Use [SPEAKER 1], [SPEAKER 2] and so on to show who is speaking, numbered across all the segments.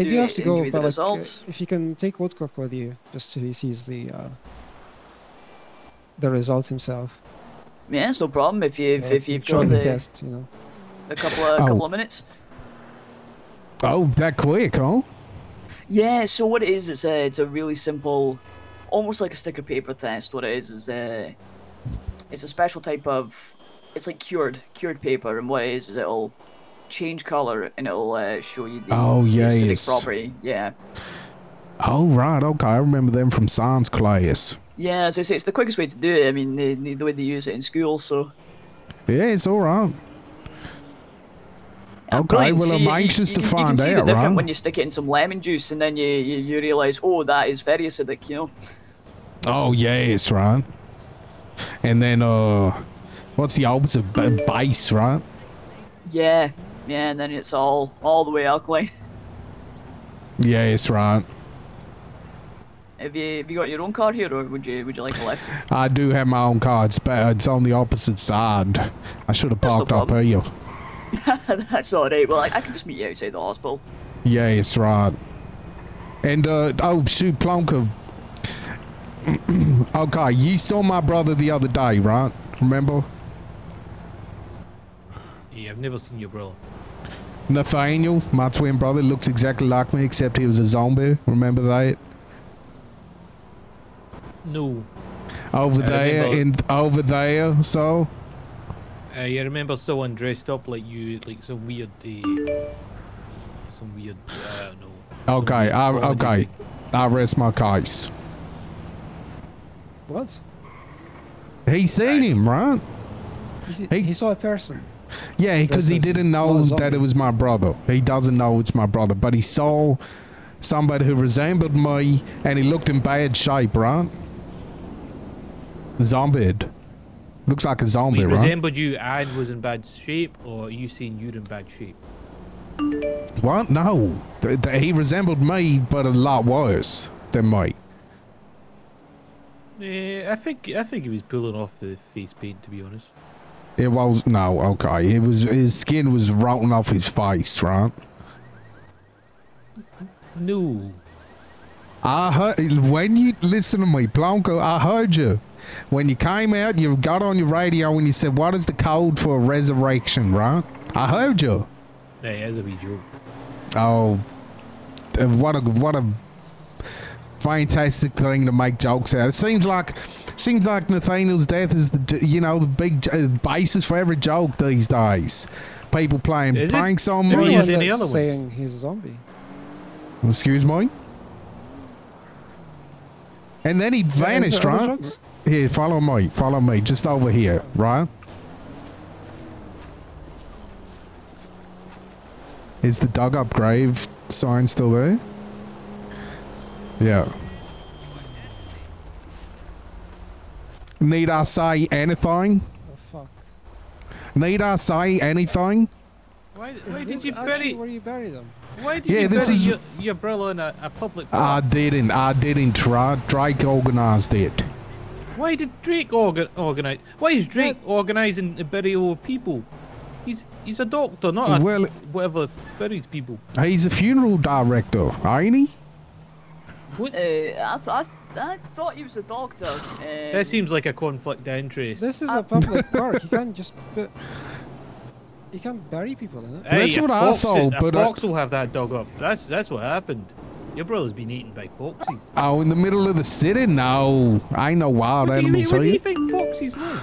[SPEAKER 1] I do
[SPEAKER 2] Do
[SPEAKER 1] have to
[SPEAKER 2] it and
[SPEAKER 1] go,
[SPEAKER 2] give me
[SPEAKER 1] but
[SPEAKER 2] the
[SPEAKER 1] like, uh,
[SPEAKER 2] results.
[SPEAKER 1] if you can take Woodcock with you, just so he sees the uh, the result himself.
[SPEAKER 2] Yeah, it's no problem if you if,
[SPEAKER 1] uh,
[SPEAKER 2] if you've
[SPEAKER 1] short
[SPEAKER 2] got the,
[SPEAKER 1] test, you know.
[SPEAKER 2] a couple of
[SPEAKER 3] Oh.
[SPEAKER 2] couple of minutes.
[SPEAKER 3] Oh, that quick, huh?
[SPEAKER 2] Yeah, so what it is, it's a it's a really simple, almost like a stick of paper test. What it is is a it's a special type of it's like cured cured paper, and what it is is it'll change color and it'll uh, show you the,
[SPEAKER 3] Oh,
[SPEAKER 2] the acidic
[SPEAKER 3] yes.
[SPEAKER 2] property. Yeah,
[SPEAKER 3] Oh, right. Okay. I remember them from science class.
[SPEAKER 2] yeah. So it's, it's the quickest way to do it. I mean, the, the way they use it in school. So
[SPEAKER 3] Yeah, it's all right.
[SPEAKER 2] Yeah,
[SPEAKER 3] Okay,
[SPEAKER 2] brilliant.
[SPEAKER 3] well,
[SPEAKER 2] So
[SPEAKER 3] I'm
[SPEAKER 2] you- you-
[SPEAKER 3] anxious
[SPEAKER 2] you
[SPEAKER 3] to
[SPEAKER 2] can-
[SPEAKER 3] find
[SPEAKER 2] You can see the
[SPEAKER 3] out,
[SPEAKER 2] difference
[SPEAKER 3] right?
[SPEAKER 2] when you stick it in some lemon juice, and then you you, you realize, oh, that is very acidic. You know.
[SPEAKER 3] Oh, yes, right. And then, uh, what's the opposite? B- base, right?
[SPEAKER 2] Yeah, yeah. And then it's all all the way alkaline.
[SPEAKER 3] Yes, right.
[SPEAKER 2] Have you have you got your own car here, or would you would you like a lift?
[SPEAKER 3] I do have my own car. It's, ba- it's on the opposite side. I should have
[SPEAKER 2] That's no
[SPEAKER 3] parked up
[SPEAKER 2] problem.
[SPEAKER 3] here.
[SPEAKER 2] That's all right. Well, I, I can just meet you outside the hospital.
[SPEAKER 3] Yes, right. And, uh, oh, shoot, Plonka. okay, you saw my brother the other day, right? Remember?
[SPEAKER 4] Yeah, Eh, I've never seen your brother.
[SPEAKER 3] Nathaniel, my twin brother, looks exactly like me, except he was a zombie. Remember that?
[SPEAKER 4] No,
[SPEAKER 3] Over
[SPEAKER 4] I
[SPEAKER 3] there,
[SPEAKER 4] remember.
[SPEAKER 3] and over there, so.
[SPEAKER 4] Eh, I remember someone dressed up like you, like some weird, uh, some weird. I don't know. some
[SPEAKER 3] Okay, I,
[SPEAKER 4] weird comedy
[SPEAKER 3] okay.
[SPEAKER 4] thing.
[SPEAKER 3] I rest my case.
[SPEAKER 1] What?
[SPEAKER 3] He seen him, right?
[SPEAKER 1] He, see-
[SPEAKER 3] Hey.
[SPEAKER 1] he saw a person.
[SPEAKER 3] Yeah, because he
[SPEAKER 1] That's- that's
[SPEAKER 3] didn't
[SPEAKER 1] not a
[SPEAKER 3] know that
[SPEAKER 1] zombie.
[SPEAKER 3] it was my brother. He doesn't know it's my brother, but he saw somebody who resembled me, and he looked in bad shape, right? Zombied. Looks like a zombie,
[SPEAKER 4] He
[SPEAKER 3] right?
[SPEAKER 4] resembled you and was in bad shape, or you seen you in bad shape?
[SPEAKER 3] What? No. Th- th- he resembled me, but a lot worse than me.
[SPEAKER 4] Yeah, Eh, I think I think he was pulling off the face paint, to be honest.
[SPEAKER 3] It was no, okay. It was his skin was rotting off his face, right?
[SPEAKER 4] No,
[SPEAKER 3] I heard when you listen to me, Blanco. I heard you when you came out. You got on your radio and you said, "What is the code for a resurrection?" Right? I heard you.
[SPEAKER 4] that is Eh, a wee joke.
[SPEAKER 3] Oh, uh, what a what a fantastic thing to make jokes out. It seems like seems like Nathaniel's death is the j- you know the big j- uh, basis for every joke these days. People playing
[SPEAKER 4] Is it?
[SPEAKER 3] pranks on
[SPEAKER 4] There
[SPEAKER 1] No
[SPEAKER 4] he
[SPEAKER 3] me.
[SPEAKER 4] is
[SPEAKER 1] one
[SPEAKER 4] in the
[SPEAKER 1] that's
[SPEAKER 4] other ones.
[SPEAKER 1] saying he's a zombie.
[SPEAKER 3] Excuse me. And then he vanished,
[SPEAKER 1] there other
[SPEAKER 3] right?
[SPEAKER 1] drugs?
[SPEAKER 3] Here, follow me. Follow me. Just over here, right? Is the dug up grave sign still there? Yeah. Need I say anything?
[SPEAKER 1] Oh fuck.
[SPEAKER 3] Need I say anything?
[SPEAKER 4] Why,
[SPEAKER 1] Is
[SPEAKER 4] why
[SPEAKER 1] this
[SPEAKER 4] did you
[SPEAKER 1] actually
[SPEAKER 4] bury?
[SPEAKER 1] where you bury them?
[SPEAKER 4] Why did
[SPEAKER 3] Yeah,
[SPEAKER 4] you
[SPEAKER 3] this
[SPEAKER 4] bury
[SPEAKER 3] is- Ah,
[SPEAKER 4] your, your brother in a, a public?
[SPEAKER 3] I
[SPEAKER 4] park?
[SPEAKER 3] didn't. I didn't try. Drake organized it.
[SPEAKER 4] Why did Drake organ- organize? Why is Drake organizing the burial of people? He's he's a doctor, not a
[SPEAKER 3] Well,
[SPEAKER 4] whatever buries people.
[SPEAKER 3] he's a funeral director, ain't he?
[SPEAKER 2] Uh, I, th- I, th- I thought he was a doctor. Um,
[SPEAKER 4] That seems like a conflict of interest.
[SPEAKER 1] This is
[SPEAKER 2] Uh,
[SPEAKER 1] a public park. You can't just bu- you can't bury people in it.
[SPEAKER 4] Hey,
[SPEAKER 3] That's
[SPEAKER 4] a
[SPEAKER 3] what I
[SPEAKER 4] fox,
[SPEAKER 3] thought,
[SPEAKER 4] a
[SPEAKER 3] but I-
[SPEAKER 4] fox will have that dog up. That's that's what happened. Your brother's been eaten by foxes.
[SPEAKER 3] Oh, in the middle of the city? No, I ain't no wild
[SPEAKER 4] What do, you, mean-
[SPEAKER 3] animals
[SPEAKER 4] what do you
[SPEAKER 3] here.
[SPEAKER 4] think foxes live?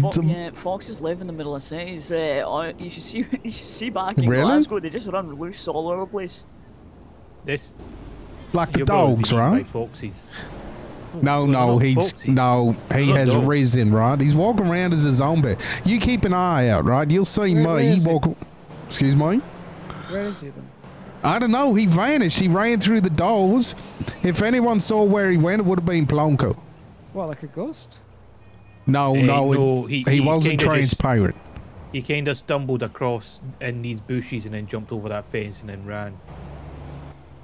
[SPEAKER 2] Fo-
[SPEAKER 3] the-
[SPEAKER 2] yeah, foxes live in the middle of cities. Uh, I- you should see you should see back in
[SPEAKER 3] Really?
[SPEAKER 2] Glasgow. They just run loose all over the place.
[SPEAKER 4] This
[SPEAKER 3] Like the
[SPEAKER 4] your brother's been
[SPEAKER 3] dogs,
[SPEAKER 4] eaten
[SPEAKER 3] right?
[SPEAKER 4] By foxes.
[SPEAKER 3] No,
[SPEAKER 4] they're
[SPEAKER 3] no,
[SPEAKER 4] not
[SPEAKER 3] he's
[SPEAKER 4] foxes.
[SPEAKER 3] no, he
[SPEAKER 4] They're not
[SPEAKER 3] has
[SPEAKER 4] dogs.
[SPEAKER 3] risen, right? He's walking around as a zombie. You keep an eye out, right? You'll see
[SPEAKER 1] Where- where
[SPEAKER 3] me. He
[SPEAKER 1] is he?
[SPEAKER 3] walk. Excuse me.
[SPEAKER 1] Where is he then?
[SPEAKER 3] I don't know. He vanished. He ran through the doors. If anyone saw where he went, it would have been Plonko.
[SPEAKER 1] What, like a ghost?
[SPEAKER 3] No,
[SPEAKER 4] Eh,
[SPEAKER 3] no, it-
[SPEAKER 4] no,
[SPEAKER 3] he,
[SPEAKER 4] he- he
[SPEAKER 3] wasn't
[SPEAKER 4] kinda just-
[SPEAKER 3] transparent.
[SPEAKER 4] He kind of stumbled across in these bushes and then jumped over that fence and then ran.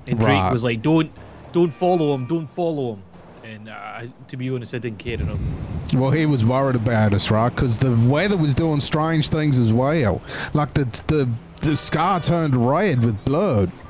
[SPEAKER 4] And Drake
[SPEAKER 3] Right.
[SPEAKER 4] was like, "Don't, don't follow him! Don't follow him!" And uh, I, to be honest, I didn't care enough.
[SPEAKER 3] Well, he was worried about us, right? Because the weather was doing strange things as well. Like the the the sky turned red with blood.